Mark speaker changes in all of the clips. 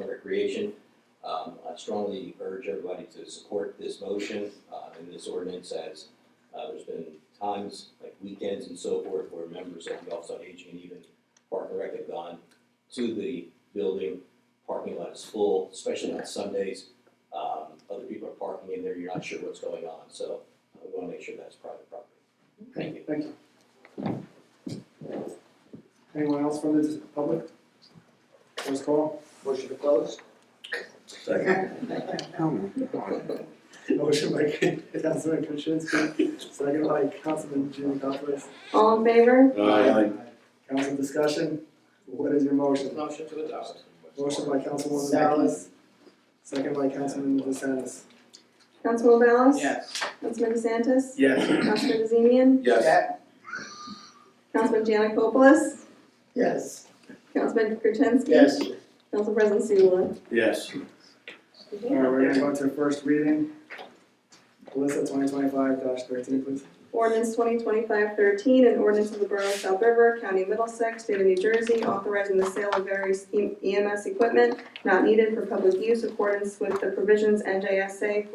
Speaker 1: and Recreation. Um, I strongly urge everybody to support this motion, uh, and this ordinance as, uh, there's been times, like weekends and so forth, where members of the Office on Aging and even Park and Rec have gone to the building, parking lot is full, especially on Sundays. Um, other people are parking in there, you're not sure what's going on, so we wanna make sure that's private property. Thank you.
Speaker 2: Thank you. Anyone else from the public? First call?
Speaker 3: Motion to close?
Speaker 2: Motion by Councilman Krasinski, second by Councilman Giannakopoulos.
Speaker 4: All in favor?
Speaker 2: Council discussion, what is your motion?
Speaker 3: Motion to adopt.
Speaker 2: Motion by Councilwoman
Speaker 3: Salas.
Speaker 2: Ballas, second by Councilman DeSantis.
Speaker 4: Councilman Ballas?
Speaker 3: Yes.
Speaker 4: Councilman DeSantis?
Speaker 2: Yes.
Speaker 4: Councilman Bazemian?
Speaker 3: Yes.
Speaker 4: Councilman Janikopoulos?
Speaker 3: Yes.
Speaker 4: Councilman Gertenski? Council President Seula?
Speaker 5: Yes.
Speaker 2: All right, we're gonna go to first reading. Alyssa, twenty twenty-five thirteen, please.
Speaker 4: Ordinance 2025-13, an ordinance of the Borough of South River, County of Middlesex, State of New Jersey, authorizing the sale of various E- EMS equipment not needed for public use in accordance with the provisions NJSA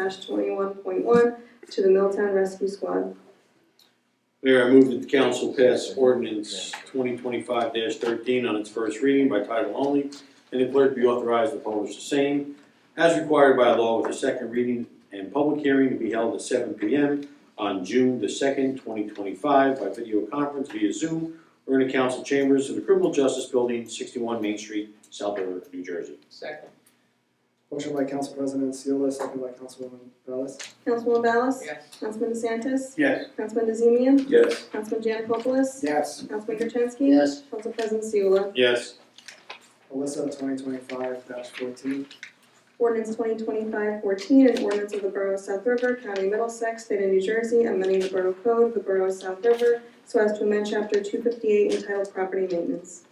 Speaker 4: 40A:12-21.1 to the Milltown Rescue Squad.
Speaker 5: Mayor, I move that the council pass ordinance twenty twenty-five thirteen on its first reading by title only, and the clerk be authorized to publish the same as required by law with a second reading and public hearing to be held at seven P M on June the second, twenty twenty-five by video conference via Zoom or in the council chambers of the Criminal Justice Building, sixty-one Main Street, South River, New Jersey.
Speaker 3: Second.
Speaker 2: Motion by Council President Seola, second by Councilwoman Ballas.
Speaker 4: Councilwoman Ballas?
Speaker 3: Yes.
Speaker 4: Councilman DeSantis?
Speaker 5: Yes.
Speaker 4: Councilman DeZemian?
Speaker 5: Yes.
Speaker 4: Councilman Janikopoulos?
Speaker 2: Yes.
Speaker 4: Councilman Gertenski?
Speaker 3: Yes.
Speaker 4: Council President Seula?
Speaker 5: Yes.
Speaker 2: Alyssa, twenty twenty-five fourteen.
Speaker 4: Ordinance 2025-14, an ordinance of the Borough of South River, County of Middlesex, State of New Jersey, amending the Borough Code of the Borough of South River so as to amend Chapter 258 entitled Property Maintenance.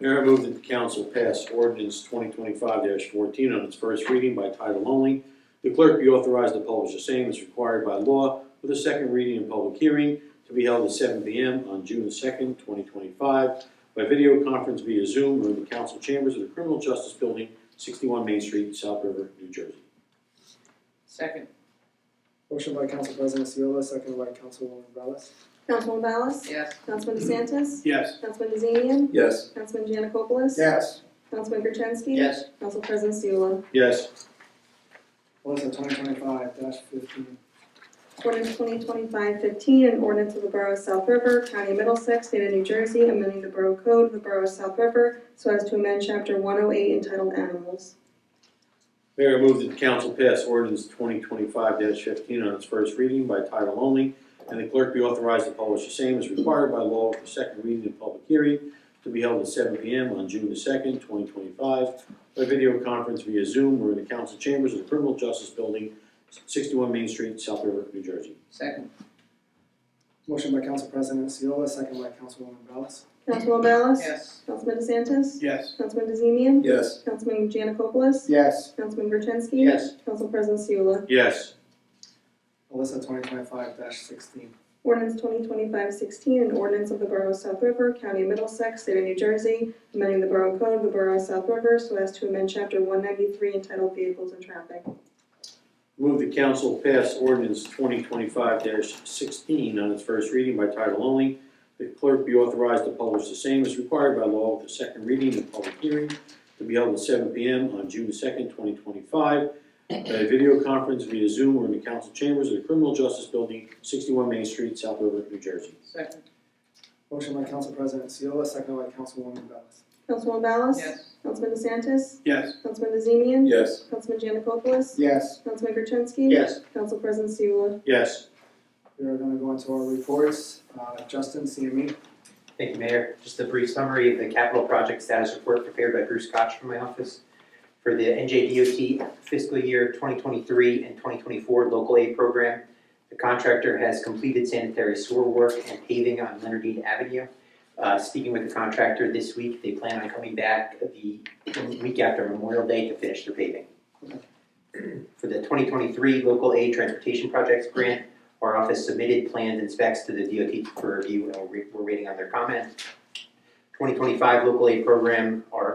Speaker 5: Mayor, I move that the council pass ordinance twenty twenty-five fourteen on its first reading by title only. The clerk be authorized to publish the same as required by law with a second reading and public hearing to be held at seven P M on June second, twenty twenty-five by video conference via Zoom or in the council chambers of the Criminal Justice Building, sixty-one Main Street, South River, New Jersey.
Speaker 3: Second.
Speaker 2: Motion by Council President Seola, second by Councilwoman Ballas.
Speaker 4: Councilman Ballas?
Speaker 3: Yes.
Speaker 4: Councilman DeSantis?
Speaker 5: Yes.
Speaker 4: Councilman DeZemian?
Speaker 5: Yes.
Speaker 4: Councilman Janikopoulos?
Speaker 2: Yes.
Speaker 4: Councilman Gertenski?
Speaker 3: Yes.
Speaker 4: Council President Seula?
Speaker 5: Yes.
Speaker 2: Alyssa, twenty twenty-five fifteen.
Speaker 4: Ordinance 2025-15, an ordinance of the Borough of South River, County of Middlesex, State of New Jersey, amending the Borough Code of the Borough of South River so as to amend Chapter 108 entitled Animals.
Speaker 5: Mayor, I move that the council pass ordinance twenty twenty-five fifteen on its first reading by title only, and the clerk be authorized to publish the same as required by law with a second reading and public hearing to be held at seven P M on June the second, twenty twenty-five, by video conference via Zoom or in the council chambers of the Criminal Justice Building, sixty-one Main Street, South River, New Jersey.
Speaker 3: Second.
Speaker 2: Motion by Council President Seola, second by Councilwoman Ballas.
Speaker 4: Councilman Ballas?
Speaker 3: Yes.
Speaker 4: Councilman DeSantis?
Speaker 2: Yes.
Speaker 4: Councilman DeZemian?
Speaker 5: Yes.
Speaker 4: Councilman Janikopoulos?
Speaker 2: Yes.
Speaker 4: Councilman Gertenski?
Speaker 3: Yes.
Speaker 4: Council President Seula?
Speaker 5: Yes.
Speaker 2: Alyssa, twenty twenty-five sixteen.
Speaker 4: Ordinance 2025-16, an ordinance of the Borough of South River, County of Middlesex, State of New Jersey, amending the Borough Code of the Borough of South River so as to amend Chapter 193 entitled Vehicles and Traffic.
Speaker 5: Move the council pass ordinance twenty twenty-five sixteen on its first reading by title only. The clerk be authorized to publish the same as required by law with a second reading and public hearing to be held at seven P M on June second, twenty twenty-five. By video conference via Zoom or in the council chambers of the Criminal Justice Building, sixty-one Main Street, South River, New Jersey.
Speaker 3: Second.
Speaker 2: Motion by Council President Seola, second by Councilwoman Ballas.
Speaker 4: Councilman Ballas?
Speaker 3: Yes.
Speaker 4: Councilman DeSantis?
Speaker 5: Yes.
Speaker 4: Councilman DeZemian?
Speaker 5: Yes.
Speaker 4: Councilman Janikopoulos?
Speaker 2: Yes.
Speaker 4: Councilman Gertenski?
Speaker 3: Yes.
Speaker 4: Council President Seula?
Speaker 5: Yes.
Speaker 2: We are gonna go into our reports. Uh, Justin, CME.
Speaker 6: Thank you, Mayor. Just a brief summary of the capital project status report prepared by Bruce Koch from my office for the NJDOT fiscal year 2023 and 2024 local aid program. The contractor has completed sanitary sewer work and paving on Leonardine Avenue. Uh, Speaking with the contractor this week, they plan on coming back the week after Memorial Day to finish the paving. For the 2023 local aid transportation projects grant, our office submitted plans and specs to the DOT for review, and we're, we're waiting on their comment. Twenty twenty-five local aid program, our